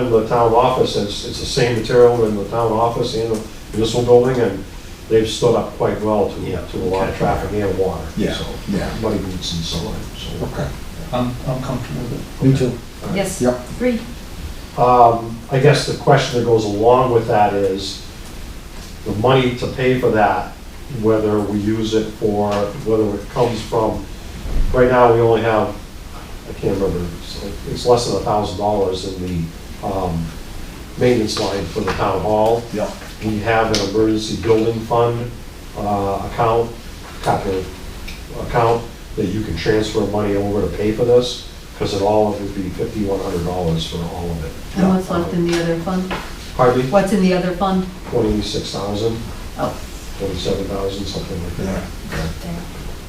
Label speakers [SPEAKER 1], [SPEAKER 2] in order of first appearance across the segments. [SPEAKER 1] in the town office, it's, it's the same material in the town office and the municipal building, and they've stood up quite well
[SPEAKER 2] Yeah,
[SPEAKER 1] to, to a lot of
[SPEAKER 2] okay.
[SPEAKER 1] traffic and water,
[SPEAKER 3] Yeah,
[SPEAKER 1] so.
[SPEAKER 3] yeah.
[SPEAKER 1] Muddy boots and so on, so.
[SPEAKER 3] Okay.
[SPEAKER 2] I'm, I'm comfortable with it.
[SPEAKER 3] Me too.
[SPEAKER 4] Yes.
[SPEAKER 3] Yep.
[SPEAKER 4] Three.
[SPEAKER 1] Um, I guess the question that goes along with that is, the money to pay for that, whether we use it for, whether it comes from, right now, we only have, I can't remember, it's like- it's less than a thousand dollars in the, um, maintenance line for the town hall.
[SPEAKER 3] Yep.
[SPEAKER 1] We have an emergency building fund uh, account, capital account, that you can transfer money over to pay for this, because it all would be fifty-one hundred dollars for all of it.
[SPEAKER 4] And what's left in the other fund?
[SPEAKER 1] Hardly
[SPEAKER 4] What's in the other fund?
[SPEAKER 1] twenty-six thousand,
[SPEAKER 4] Oh,
[SPEAKER 1] twenty-seven thousand, something like that.
[SPEAKER 3] Yeah.
[SPEAKER 4] there.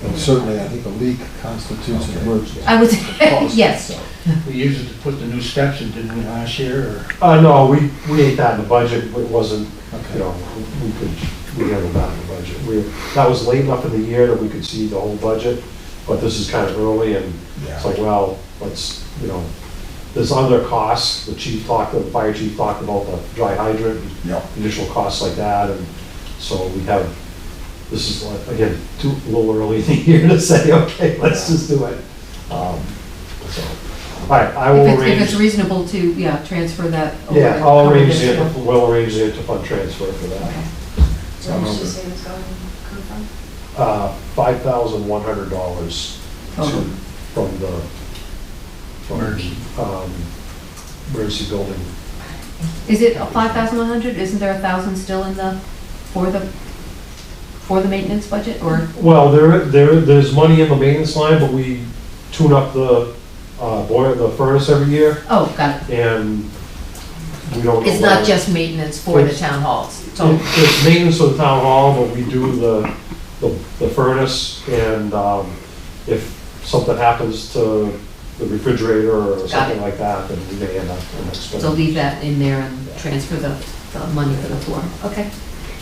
[SPEAKER 3] And certainly, I think a leak constitutes an emergency.
[SPEAKER 4] I was, Uh, eh, yes.
[SPEAKER 2] We used it to put the new steps in, didn't we, last year, or?
[SPEAKER 1] Uh, no, we, we ate that in the budget, it wasn't, you
[SPEAKER 3] Okay.
[SPEAKER 1] know, we could, we handled that in the budget. We, that was late enough in the year that we could see the whole budget, but this is kind of early, and It's like,
[SPEAKER 3] Yeah.
[SPEAKER 1] well, let's, you know, there's other costs, the chief talked, the fire chief talked about the dry hydrant, and
[SPEAKER 3] Yep.
[SPEAKER 1] additional costs like that, and so we have, this is, like, again, too, a little early in the year to say, okay, let's just do it. Um, So, all right, I
[SPEAKER 4] If
[SPEAKER 1] will
[SPEAKER 4] it's, if it's
[SPEAKER 1] arrange,
[SPEAKER 4] reasonable to, yeah, transfer that. over
[SPEAKER 1] yeah,
[SPEAKER 4] to
[SPEAKER 1] I'll
[SPEAKER 4] cover
[SPEAKER 1] arrange
[SPEAKER 4] this
[SPEAKER 1] the,
[SPEAKER 4] stuff.
[SPEAKER 1] we'll arrange the interfund transfer for
[SPEAKER 4] Okay.
[SPEAKER 1] that.
[SPEAKER 5] Where did she say it was going to come from?
[SPEAKER 1] Uh, five thousand one hundred dollars
[SPEAKER 4] Total.
[SPEAKER 1] from the, from,
[SPEAKER 2] Emergency.
[SPEAKER 1] um, emergency building
[SPEAKER 4] Is it five thousand one hundred? Isn't there a thousand still in the, for the, for the maintenance budget or?
[SPEAKER 1] Well, there, there, there's money in the maintenance line, but we tune up the uh, boiler, the furnace every year,
[SPEAKER 4] Oh, got it.
[SPEAKER 1] and we don't. know
[SPEAKER 4] It's not
[SPEAKER 1] whether-
[SPEAKER 4] just maintenance for the town halls.
[SPEAKER 1] It-
[SPEAKER 4] So,
[SPEAKER 1] It's maintenance of the town hall, but we do the, the the furnace, and um, if something happens to the refrigerator or something
[SPEAKER 4] it.
[SPEAKER 1] like that, then we may end up in expense.
[SPEAKER 4] so leave that in there and transfer the, the money for the floor. Okay,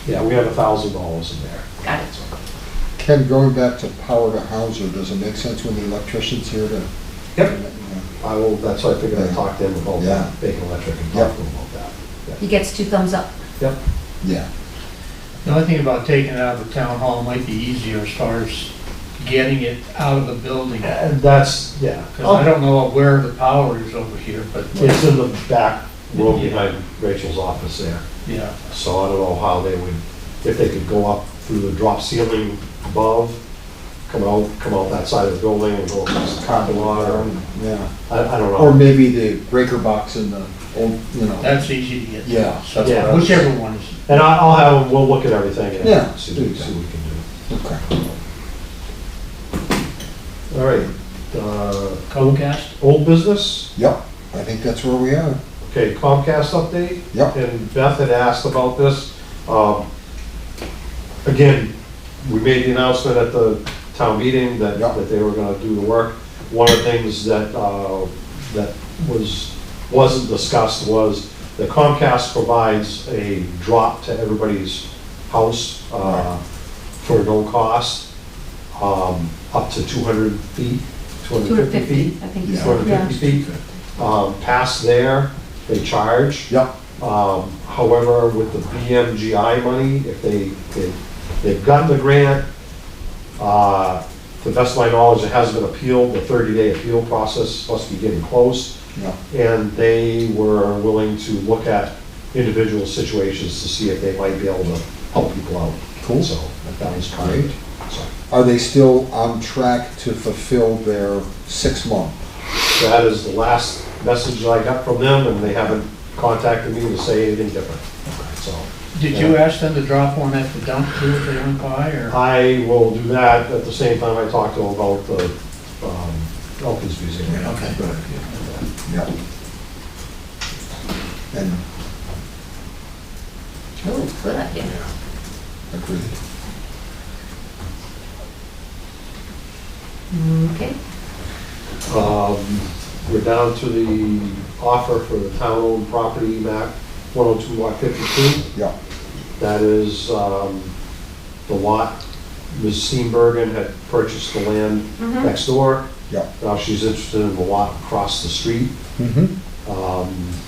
[SPEAKER 1] Yeah, we have a thousand dollars in there.
[SPEAKER 4] got it.
[SPEAKER 3] Ken, going back to power to Hauser, does it make sense when the electrician's here to?
[SPEAKER 1] Yep. I will, that's why I figured I'd talk to him about
[SPEAKER 3] Yeah.
[SPEAKER 1] that, Bacon Electric, and
[SPEAKER 3] Yeah.
[SPEAKER 1] talk to him about that.
[SPEAKER 4] He gets two thumbs up.
[SPEAKER 1] Yep.
[SPEAKER 3] Yeah,
[SPEAKER 2] The only thing about taking it out of the town hall might be easier as far as getting it out of the building.
[SPEAKER 1] And that's, yeah.
[SPEAKER 4] Oh.
[SPEAKER 2] Because I don't know where the power is over here, but,
[SPEAKER 1] It's in the back room behind Rachel's office there,
[SPEAKER 2] yeah.
[SPEAKER 1] so I don't know how they would, if they could go up through the drop ceiling above, come out, come out that side of the building and go across the carpet lot, or,
[SPEAKER 3] yeah.
[SPEAKER 1] I, I don't
[SPEAKER 3] Or
[SPEAKER 1] know.
[SPEAKER 3] maybe the breaker box in the old, you know,
[SPEAKER 2] That's easy to get.
[SPEAKER 3] Yeah,
[SPEAKER 2] So,
[SPEAKER 1] that's what I was-
[SPEAKER 2] Whichever one is,
[SPEAKER 1] And I, I'll have, 'em- we'll look at everything
[SPEAKER 3] Yeah,
[SPEAKER 1] and see,
[SPEAKER 3] do
[SPEAKER 1] what-
[SPEAKER 3] that.
[SPEAKER 1] see what we can do.
[SPEAKER 3] okay.
[SPEAKER 1] All right, uh,
[SPEAKER 2] Comcast,
[SPEAKER 1] old business,
[SPEAKER 3] Yep, I think that's where we are.
[SPEAKER 1] okay, Comcast update?
[SPEAKER 3] Yep,
[SPEAKER 1] and Beth had asked about this. Um, Again, we made the announcement at the town meeting that,
[SPEAKER 3] Yeah.
[SPEAKER 1] that they were gonna do the work. One of the things that, uh, that was, wasn't discussed was that Comcast provides a drop to everybody's house uh, for no cost, um, up to 200 feet,
[SPEAKER 4] 250,
[SPEAKER 1] 250 feet.
[SPEAKER 4] I think.
[SPEAKER 3] Yeah.
[SPEAKER 1] 250 feet. Um, Past there, they charge.
[SPEAKER 3] yep,
[SPEAKER 1] Um, However, with the BMGI money, if they, they- they've gotten the grant, uh, to the best of my knowledge, it hasn't been appealed, the 30-day appeal process must be getting close,
[SPEAKER 3] yep,
[SPEAKER 1] and they were willing to look at individual situations to see if they might be able to help people out.
[SPEAKER 3] cool.
[SPEAKER 1] So that was kind. So
[SPEAKER 3] Are they still on track to fulfill their six month?
[SPEAKER 1] That is the last message that I got from them, and they haven't contacted me to say anything different. So
[SPEAKER 2] did you ask them to drop one at the dump too if they don't buy, or?
[SPEAKER 1] I will do that at the same time I talk to them about the um, Elkins Museum.
[SPEAKER 2] Okay.
[SPEAKER 3] Good idea. Yep. And
[SPEAKER 4] Oh, good idea.
[SPEAKER 3] agreed.
[SPEAKER 4] Mm, Okay,
[SPEAKER 1] Um, We're down to the offer for the town-owned property, map 102 lot 52.
[SPEAKER 3] Yep,
[SPEAKER 1] That is um, the lot, Ms. Steenbergen had purchased the land
[SPEAKER 4] Mhm.
[SPEAKER 1] next door.
[SPEAKER 3] yep.
[SPEAKER 1] Now she's interested in the lot across the street.
[SPEAKER 3] Mm-hmm.
[SPEAKER 1] Um,